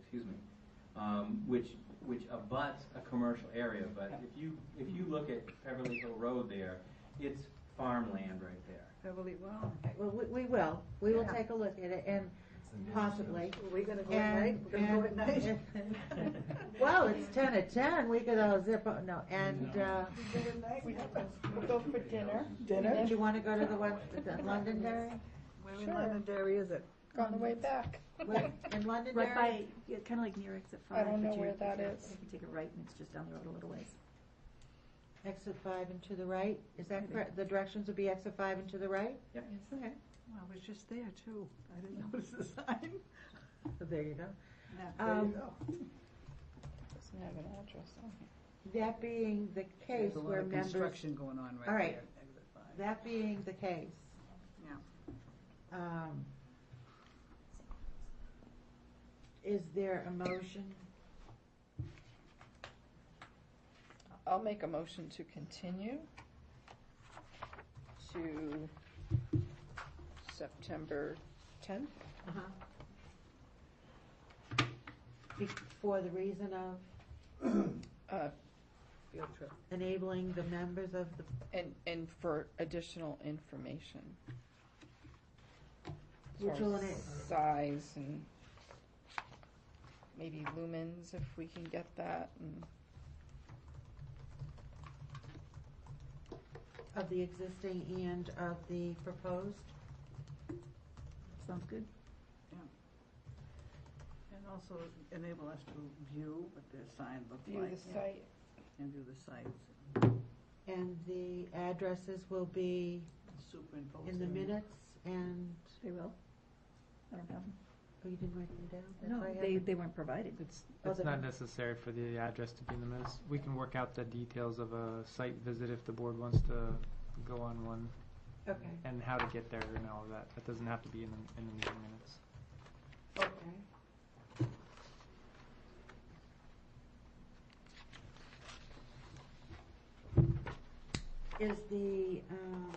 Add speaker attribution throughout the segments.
Speaker 1: excuse me, um, which, which abuts a commercial area, but if you, if you look at Beverly Hill Road there, it's farmland right there.
Speaker 2: Beverly, well,
Speaker 3: Okay, Well, we, we will, we will
Speaker 2: Yeah.
Speaker 3: take a look at it and possibly.
Speaker 2: are we gonna go at night?
Speaker 3: And,
Speaker 2: We're gonna go at
Speaker 3: and-
Speaker 2: night?
Speaker 3: Well, it's ten at ten, we could all zip, up. no, and, uh,
Speaker 2: We go at night, we have a-
Speaker 4: We'll go for dinner.
Speaker 3: do you wanna go to the one, the Londonderry?
Speaker 2: Where in
Speaker 4: Sure.
Speaker 2: Londonderry is it?
Speaker 4: On the way back.
Speaker 3: Where- In Londonderry?
Speaker 5: Right by, yeah, kind of like near exit
Speaker 4: I
Speaker 5: five.
Speaker 4: don't
Speaker 5: but
Speaker 4: know
Speaker 5: you-
Speaker 4: where
Speaker 5: if
Speaker 4: that
Speaker 5: you-
Speaker 4: is.
Speaker 5: If you take a right and it's just down the road a little ways.
Speaker 3: Exit five and to the right, is that correct? The directions would be exit five and to the right?
Speaker 1: Yep.
Speaker 3: Okay,
Speaker 2: Well, I was just there too. I didn't notice the sign.
Speaker 3: so there you go.
Speaker 2: Now,
Speaker 3: Um,
Speaker 4: Doesn't have an address on it.
Speaker 3: That being the case
Speaker 2: There's a lot
Speaker 3: where
Speaker 2: of
Speaker 3: members,
Speaker 2: construction going on right there.
Speaker 3: All right.
Speaker 2: Exit five.
Speaker 3: that being the case.
Speaker 2: Yeah.
Speaker 3: um, Is there a motion?
Speaker 4: I'll make a motion to continue to September tenth.
Speaker 3: Uh-huh. Be- For the reason of
Speaker 4: Uh, field trip.
Speaker 3: enabling the members of the,
Speaker 4: And, and for additional information. As
Speaker 3: Which
Speaker 4: far
Speaker 3: will
Speaker 4: as
Speaker 3: enable-
Speaker 4: Size and maybe lumens if we can get that and.
Speaker 3: of the existing and of the proposed?
Speaker 5: Sounds good.
Speaker 2: And also enable us to view what the sign looked
Speaker 4: View
Speaker 2: like.
Speaker 4: the
Speaker 2: yeah,
Speaker 4: site.
Speaker 2: And view the sites,
Speaker 3: And the addresses will be
Speaker 6: Oh,
Speaker 2: superimpose.
Speaker 3: in the
Speaker 2: them.
Speaker 3: minutes and,
Speaker 5: They will. I don't have them.
Speaker 3: oh, you didn't write them down? That's why I
Speaker 5: No, they,
Speaker 3: haven't-
Speaker 5: they weren't provided.
Speaker 3: Oh,
Speaker 6: It's
Speaker 3: they-
Speaker 6: not necessary for the address to be in the minutes. We can work out the details of a site visit if the board wants to go on one
Speaker 3: Okay,
Speaker 6: and how to get there and all of that. That doesn't have to be in the, in the meeting minutes.
Speaker 3: okay. Is the, um,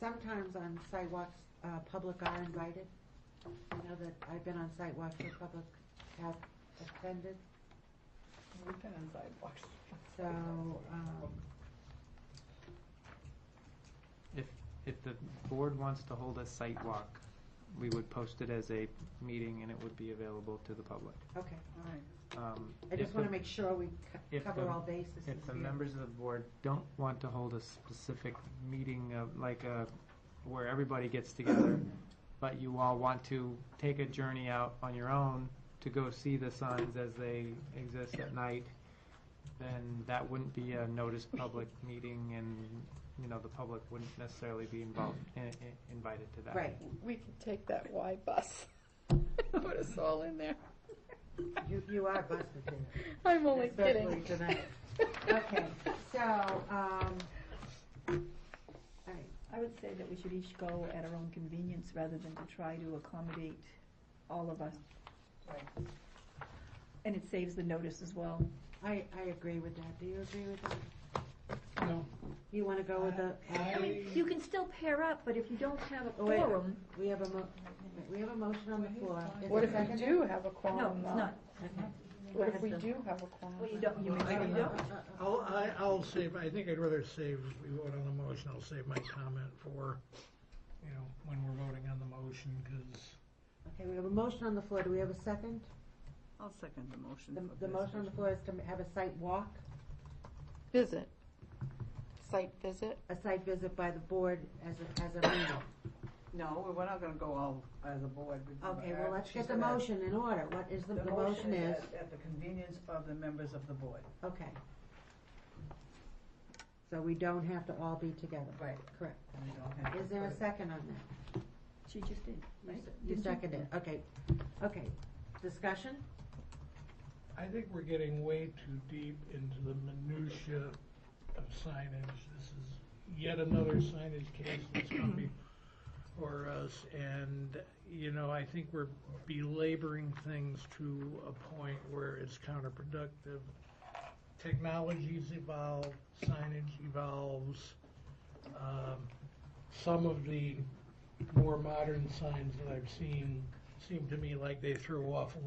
Speaker 3: sometimes on sidewalks, uh, public are invited? I know that I've been on sidewalks where public have attended.
Speaker 4: We've been on sidewalks.
Speaker 3: So, um,
Speaker 6: If, if the board wants to hold a site walk, we would post it as a meeting and it would be available to the public.
Speaker 3: okay,
Speaker 2: All right.
Speaker 6: Um,
Speaker 3: I
Speaker 6: if
Speaker 3: just
Speaker 6: the-
Speaker 3: want to make sure we co-
Speaker 6: if
Speaker 3: cover
Speaker 6: the-
Speaker 3: all bases.
Speaker 6: If the
Speaker 3: here.
Speaker 6: members of the board don't want to hold a specific meeting of, like, a, where everybody gets together, but you all want to take a journey out on your own to go see the signs as they exist at night, then that wouldn't be a noticed public meeting and, you know, the public wouldn't necessarily be involved, i- i- invited to that.
Speaker 3: Right,
Speaker 4: We can take that Y bus. Put us all in there.
Speaker 3: you, you are busted here.
Speaker 4: I'm only
Speaker 3: Especially
Speaker 4: kidding.
Speaker 3: tonight. Okay, so, um, all right,
Speaker 5: I would say that we should each go at our own convenience rather than to try to accommodate all of us.
Speaker 2: Right.
Speaker 5: And it saves the notice as well.
Speaker 3: I, I agree with that. Do you agree with that?
Speaker 7: No.
Speaker 3: You want to go
Speaker 4: Uh,
Speaker 3: with the,
Speaker 5: I mean, you can still pair up, but if you don't have a
Speaker 3: Oh, wait.
Speaker 5: quorum,
Speaker 3: we have a mo, we have a motion on the floor. Is
Speaker 4: What
Speaker 3: it
Speaker 4: if we
Speaker 3: seconded?
Speaker 4: do have a quorum?
Speaker 5: no, it's
Speaker 4: though?
Speaker 5: not.
Speaker 3: Okay.
Speaker 4: What if we do have a quorum?
Speaker 5: Well, you don't, you may, you
Speaker 3: Uh,
Speaker 5: don't.
Speaker 3: uh, uh,
Speaker 7: I'll, I, I'll save, I think I'd rather save, if we vote on the motion, I'll save my comment for, you know, when we're voting on the motion, because
Speaker 3: Okay, we have a motion on the floor. Do we have a second?
Speaker 2: I'll second the motion.
Speaker 3: The,
Speaker 2: for
Speaker 3: the motion on the
Speaker 2: discussion.
Speaker 3: floor is to have a site walk,
Speaker 4: Visit. Site visit.
Speaker 3: a site visit by the board as a, as a meeting.
Speaker 2: No, we're- we're not gonna go all as a board. We're
Speaker 3: Okay,
Speaker 2: gonna-
Speaker 3: well, let's
Speaker 2: she's
Speaker 3: get the
Speaker 2: gonna-
Speaker 3: motion in order. What is the, the motion is?
Speaker 2: at- At the convenience of the members of the board.
Speaker 3: Okay. So we don't have to all be together.
Speaker 2: Right.
Speaker 3: Correct.
Speaker 2: And we don't have to
Speaker 3: Is there
Speaker 2: put
Speaker 3: a
Speaker 2: it-
Speaker 3: second on that?
Speaker 5: She just did, right?
Speaker 3: You
Speaker 5: Didn't
Speaker 3: seconded, okay. Okay, discussion?
Speaker 7: I think we're getting way too deep into the minutia of signage. This is yet another signage case that's coming for us, and, you know, I think we're belaboring things to a point where it's counterproductive. Technologies evolve, signage evolves. Um, Some of the more modern signs that I've seen seem to me like they throw off a